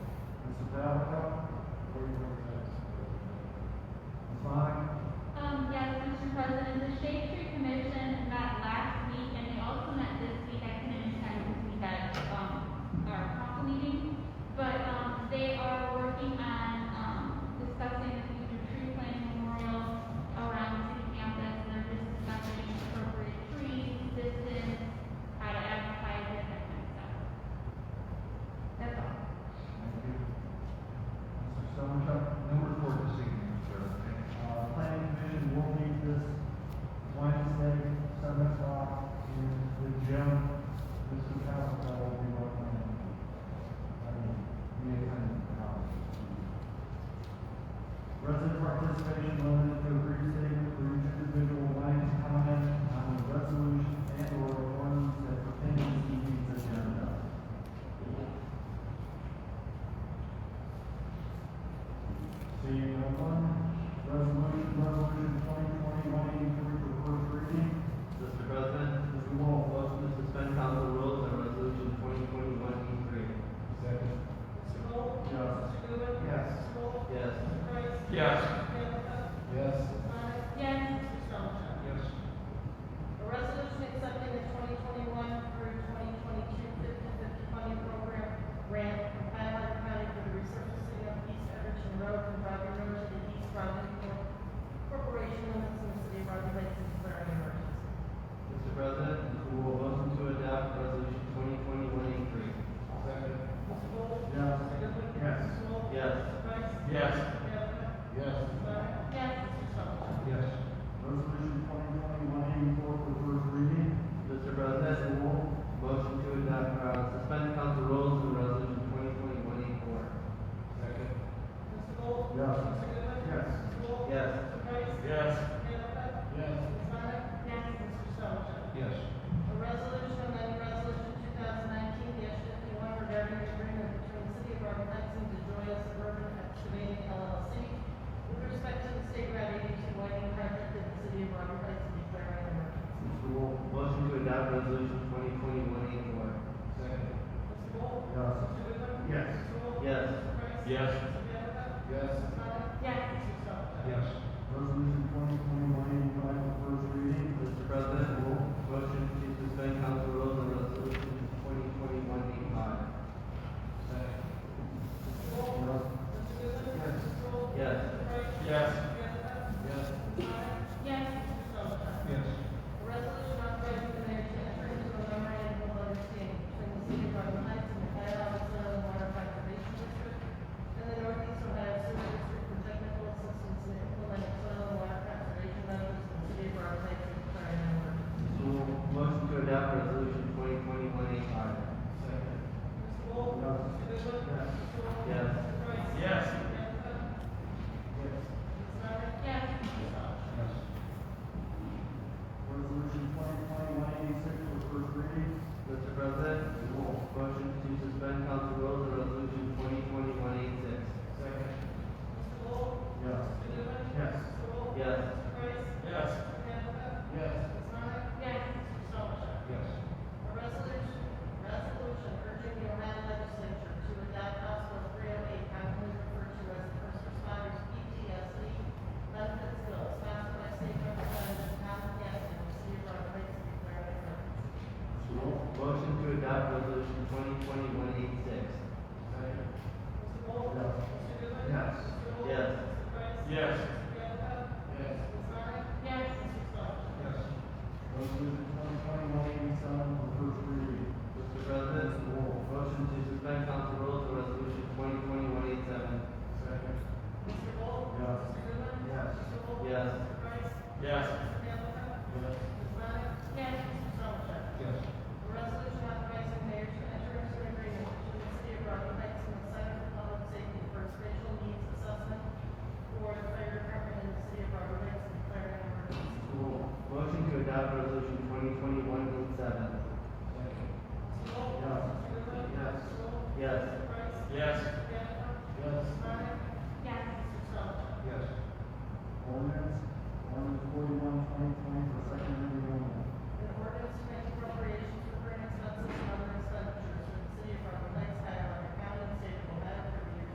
uh, Um, um, um, Resident participation limited to a brief statement for each individual line of comment on the resolution and or ordinance that pertain to this evening's agenda. Seeing no one, resolution, resolution twenty twenty one eighty-three for first reading. Mr. President, Mr. Wolf, motion to suspend council rules on resolution twenty twenty-one E second. Mr. Gold? Yes. Mr. Goodwin? Yes. Mr. Gold? three. Yes. Yes. Mr. Price? Mr. Hanford? Yes. Mr. Sonic? Yes. Mr. Strong? Yes. A resolution accepting the twenty twenty-one through twenty twenty-two fifty-fifty funding program grant from Pioneer County for the resurfacing of East Everton Road from Roger Road to the East Roger Corp- Corporation limits in the city of Roger Lake and declaring an emergency. Mr. President, we will motion to adopt resolution twenty twenty-one E three. Second. Mr. Gold? Yes. Mr. Goodwin? Yes. Mr. Wolf? Yes. Mr. Price? Yes. Mr. Hanford? Yes. Mr. Sonic? Yes. Mr. Strong? Resolution twenty twenty one Yes. eighty-four for first reading. Mr. President, we will motion to adopt, uh, suspend council rules on resolution twenty twenty-one E four. Second. Mr. Gold? Yes. Mr. Goodwin? Yes. Mr. Wolf? Yes. Mr. Price? Yes. Mr. Hanford? Yes. Mr. Sonic? Yes. Mr. Strong? Yes. A resolution amending resolution two thousand nineteen fifty-one regarding the agreement between the city of Rock Lexington and Joya Suburban Excavating LLC with respect to the state route eighty-two widening project in the city of Rock Lexington declaring an emergency. Mr. Wolf, motion to adopt resolution twenty twenty-one E four. Second. Mr. Wolf? Yes. Mr. Goodwin? Yes. Mr. Wolf? Yes. Mr. Price? Yes. Mr. Bianca? Yes. Mr. Sonic? Yes. Mr. Stoneman? Yes. Resolution twenty twenty one eighty-five for first reading. Mr. President, we will motion to suspend council rules on resolution twenty twenty-one E five. Yes. Yes. Yes. Yes. Yes. Yes. Yes. Yes. Yes. Resolution twenty twenty one eighty-six for first reading. Second. Yes. Yes. Yes. Second. Yes. Yes. So motion to adopt resolution twenty twenty-one eight five. Second. Yes. Yes. Mr. President, we will motion to suspend council rules on resolution twenty twenty-one eight six. Yes. Yes. Mr. Wolf? Mr. Goodwin? Mr. Wolf? Mr. Price? Mr. Bianca? Mr. Sonic? Yes. Mr. Stoneman? A resolution authorizing the mayor to enter into a memorandum of understanding between the city of Garden Heights and the Ohio Soil and Water Conservation District and the Northeast Ohio Sewer District for technical assistance in implementing soil and water conservation measures in the city of Garden Heights and declaring an emergency. Mr. Wolf? Mr. Goodwin? Mr. Wolf? Mr. Price? Mr. Hanford? Mr. Sonic? Yes. Mr. Stoneman? Mr. Wolf? Mr. Goodwin? Mr. Wolf? Mr. Price? Mr. Hanford? Mr. Sonic? Yes. Mr. Stoneman? A resolution, resolution urging the Ohio legislature to adopt House Bill three oh eight, commonly referred to as the First Responders PTSD Benefits Bill, sponsored by State Representative Tom Gaskin, of the City of Rock Lake, and declaring an emergency. So motion to adopt resolution twenty twenty-one eight six. Second. Mr. Wolf? Yes. Mr. Goodwin? Yes. Mr. Wolf? Yes. Yes. Mr. Price? Mr. Bianca? Yes. Ms. Sonic? Yes. Mr. Yes. Stoneman? Resolution twenty twenty one eighty-seven for first reading. Mr. President, we will motion to suspend council rules on resolution twenty twenty-one eight seven. Second. Mr. Wolf? Yes. Mr. Goodwin? Yes. Mr. Wolf? Yes. Mr. Price? Yes. Mr. Bianca? Yes. Ms. Sonic? Yes. Mr. Stoneman? Yes. A resolution authorizing mayor to enter into an agreement between the city of Rock Heights and the Center for Public Safety for Spatial Needs Assessment for the fire department in the city of Rock Heights and declaring an emergency. So motion to adopt resolution twenty twenty-one eight seven. Yes. Mr. Wolf? Mr. Goodwin? Yes. Mr. Wolf? Yes. Mr. Price? Yes. Mr. Bianca? Yes. Mr. Sonic? Yes. Mr. Sullivan? Yes. Ordinance, ordinance forty-one twenty twenty for second